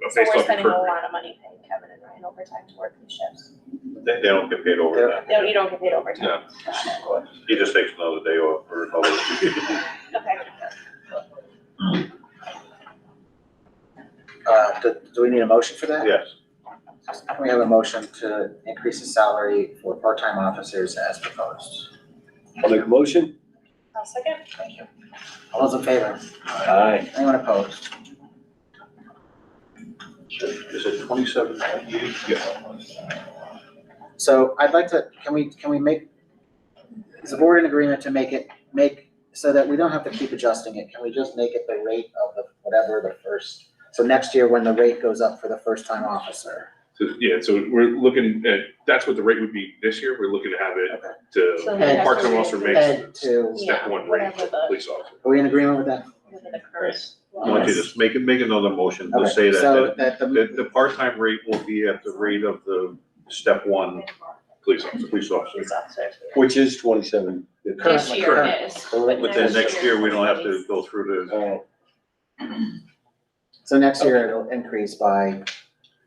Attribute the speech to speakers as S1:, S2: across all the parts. S1: but
S2: So
S1: based
S2: we're
S1: on
S2: spending a
S1: recruitment,
S2: lot of money paying Kevin and Ryan overtime to work these shifts.
S1: they, they don't get paid overtime.
S2: No, you don't get paid overtime.
S1: He just takes another day off or another.
S2: Okay.
S3: Uh, do, do we need a motion for that?
S1: Yes,
S3: Can we have a motion to increase the salary for part-time officers as proposed?
S4: I'll make a motion.
S2: I'll second.
S3: Thank you. All those in favor?
S4: Aye.
S3: Anyone opposed?
S1: is it twenty-seven ninety-eight? Yeah.
S3: So I'd like to, can we, can we make, is the board in agreement to make it, make, so that we don't have to keep adjusting it, can we just make it the rate of the, whatever the first? So next year, when the rate goes up for the first-time officer,
S1: So, yeah, so we're looking at, that's what the rate would be this year, we're looking to have it
S3: Okay.
S1: to
S2: So we have
S1: Parks and
S2: to-
S1: Rec makes-
S3: head to,
S1: step one rate for
S2: Whatever the-
S1: police officer.
S3: are we in agreement with that?
S2: whatever the current
S1: I want you
S2: law
S1: to
S2: is.
S1: just make, make another motion to
S3: Okay,
S1: say that,
S3: So
S1: that-
S3: that
S1: that
S3: the,
S1: the part-time rate will be at the rate of the step one um, police officer, police officer.
S2: Police officers.
S4: Which is twenty-seven.
S2: This
S3: Currently,
S2: year
S1: current.
S2: it is.
S1: But then next year, we don't have to go through
S3: Oh.
S1: the,
S4: Alright,
S3: so next year it'll increase by,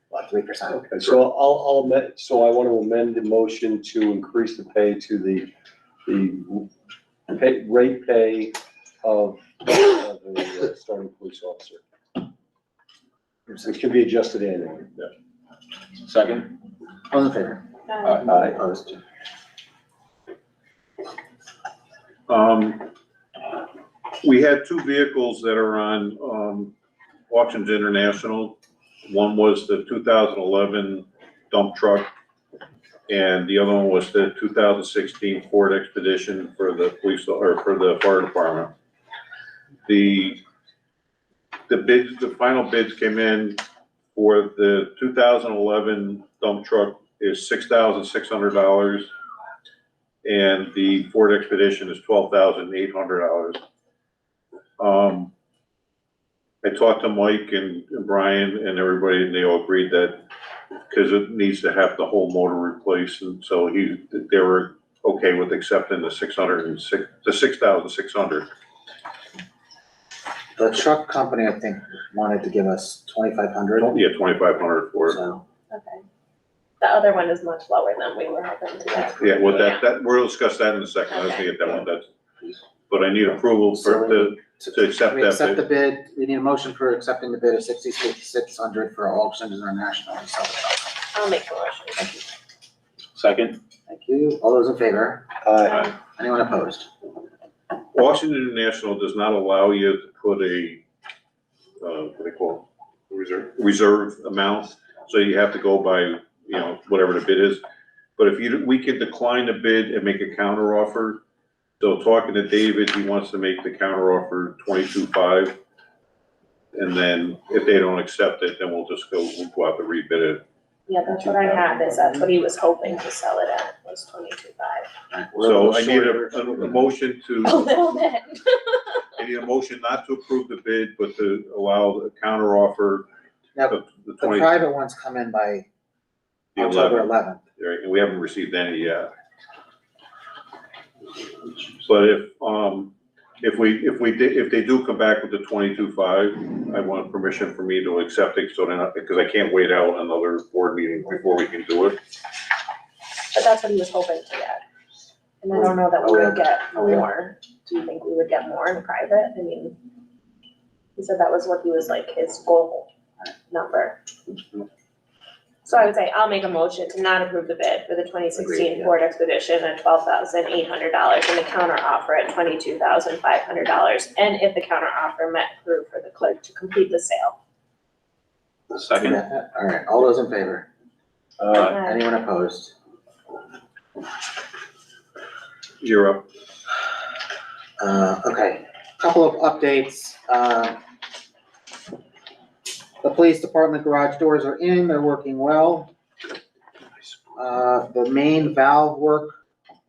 S3: what, three percent?
S4: okay, so I'll, I'll, amend- so I want to amend the motion to increase the pay to the, the pay, rate pay of of the uh, starting police officer. Which can be adjusted annually. Second.
S3: All in favor?
S2: Um,
S1: Uh,
S4: Aye.
S3: Opposed?
S1: um, we had two vehicles that are on, um, Auctions International. One was the two thousand eleven dump truck, and the other one was the two thousand sixteen Ford Expedition for the police, or for the fire department. The, the bids, the final bids came in for the two thousand eleven dump truck is six thousand six hundred dollars. And the Ford Expedition is twelve thousand eight hundred dollars. Um, I talked to Mike and and Brian and everybody, and they all agreed that, because it needs to have the whole motor replaced, and so he, they were okay with accepting the six hundred and six, the six thousand six hundred.
S3: The truck company, I think, wanted to give us twenty-five hundred,
S1: Yeah, twenty-five hundred for it.
S3: so,
S2: Okay. The other one is much lower than we were hoping to get.
S1: Yeah, well, that, that, we'll discuss that in a second, I was gonna get that one, that's, but I need approval for the, to accept
S3: we accept the
S1: that
S3: bid, we need a motion for accepting the bid of sixty-six hundred for Auctions International. to sell the truck.
S2: I'll make the motion.
S4: Second.
S3: Thank you, all those in favor,
S4: Aye.
S2: Um,
S3: anyone opposed?
S1: bid. Washington International does not allow you to put a, uh, what do you call it? Reserve. Reserve amount, so you have to go by, you know, whatever the bid is. But if you, we could decline the bid and make a counter offer. So talking to David, he wants to make the counter offer twenty-two-five. And then if they don't accept it, then we'll just go, we'll go out to rebid it
S2: Yeah, that's what I have, is that's what he was hoping to sell it at, was twenty-two five.
S3: Alright, we're a
S1: So
S3: little
S1: I need a,
S3: shorter.
S1: a- Oh, a motion
S2: A
S1: to,
S2: little bit.
S1: I need a motion not to approve the bid, but to allow the counter offer
S3: Now,
S1: of the
S3: The
S1: twenty, the
S3: private ones come in by October
S1: eleven,
S3: eleventh,
S1: right, and we haven't received any yet. But if, um, if we, if we did, if they do come back with the twenty-two five, I want permission for me to accept it, so then, I- because I can't wait out another board meeting before we can do it.
S2: But that's what he was hoping to get. And I don't know that we would get
S3: Oh, yeah.
S2: more. Do you think we would get more in private? I mean, he said that was what he was like, his goal uh, number. So I would say I'll make a motion to not approve the bid for the twenty sixteen
S3: yeah.
S2: Ford Expedition at twelve thousand eight hundred dollars and the counter offer at twenty-two thousand five hundred dollars. And if the counter offer met approved for the clerk to complete the sale.
S3: alright, all those in favor,
S4: Aye.
S2: Uh,
S3: anyone opposed?
S1: You're up.
S3: Uh, okay, couple of updates, uh. The police department garage doors are in, they're working well. Uh, the main valve work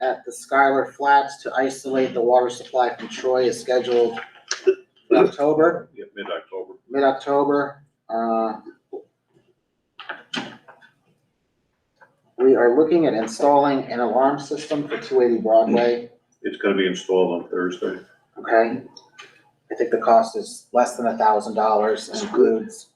S3: at the Skylar Flats to isolate the water supply from Troy is scheduled in October,
S1: Yeah, mid-October.
S3: mid-October, uh. We are looking at installing an alarm system for two eighty Broadway.
S1: It's gonna be installed on Thursday.
S3: Okay, I think the cost is less than a thousand dollars, includes